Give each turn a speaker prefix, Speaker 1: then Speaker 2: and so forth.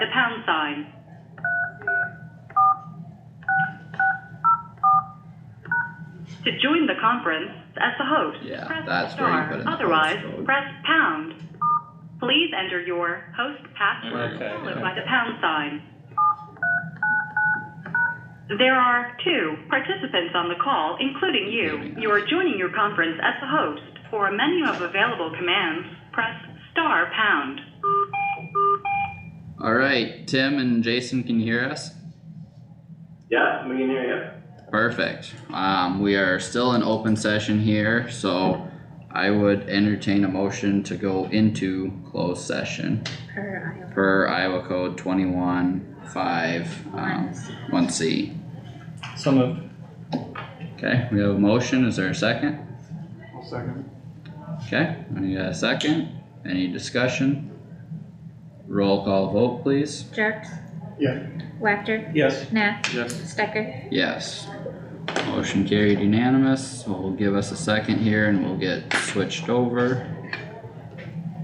Speaker 1: sign. To join the conference as the host,
Speaker 2: Yeah,
Speaker 1: press
Speaker 2: that's where you
Speaker 1: star.
Speaker 2: put in the host
Speaker 1: Otherwise,
Speaker 2: code.
Speaker 1: press pound. Please enter your host
Speaker 2: There
Speaker 1: password
Speaker 2: we go.
Speaker 3: Okay.
Speaker 1: followed
Speaker 2: Yeah.
Speaker 1: by the pound sign. There are two participants on the call, including you.
Speaker 2: Including
Speaker 1: You are joining your conference as the host. For a menu of available commands, press star pound.
Speaker 2: All right, Tim and Jason, can you hear us?
Speaker 4: Yeah, we can hear you.
Speaker 2: Perfect. Um, we are still in open session here, so I would entertain a motion to go into closed session
Speaker 5: Per Iowa.
Speaker 2: per Iowa Code twenty-one five, um, one C.
Speaker 3: So moved.
Speaker 2: Okay, we have a motion. Is there a second?
Speaker 6: I'll second.
Speaker 2: Okay, I need a second. Any discussion? Roll call vote, please.
Speaker 5: Jerks.
Speaker 6: Yeah.
Speaker 5: Wactor.
Speaker 3: Yes.
Speaker 5: Nat.
Speaker 6: Yes.
Speaker 5: Stecker.
Speaker 2: Yes. Motion carried unanimous. We'll give us a second here and we'll get switched over.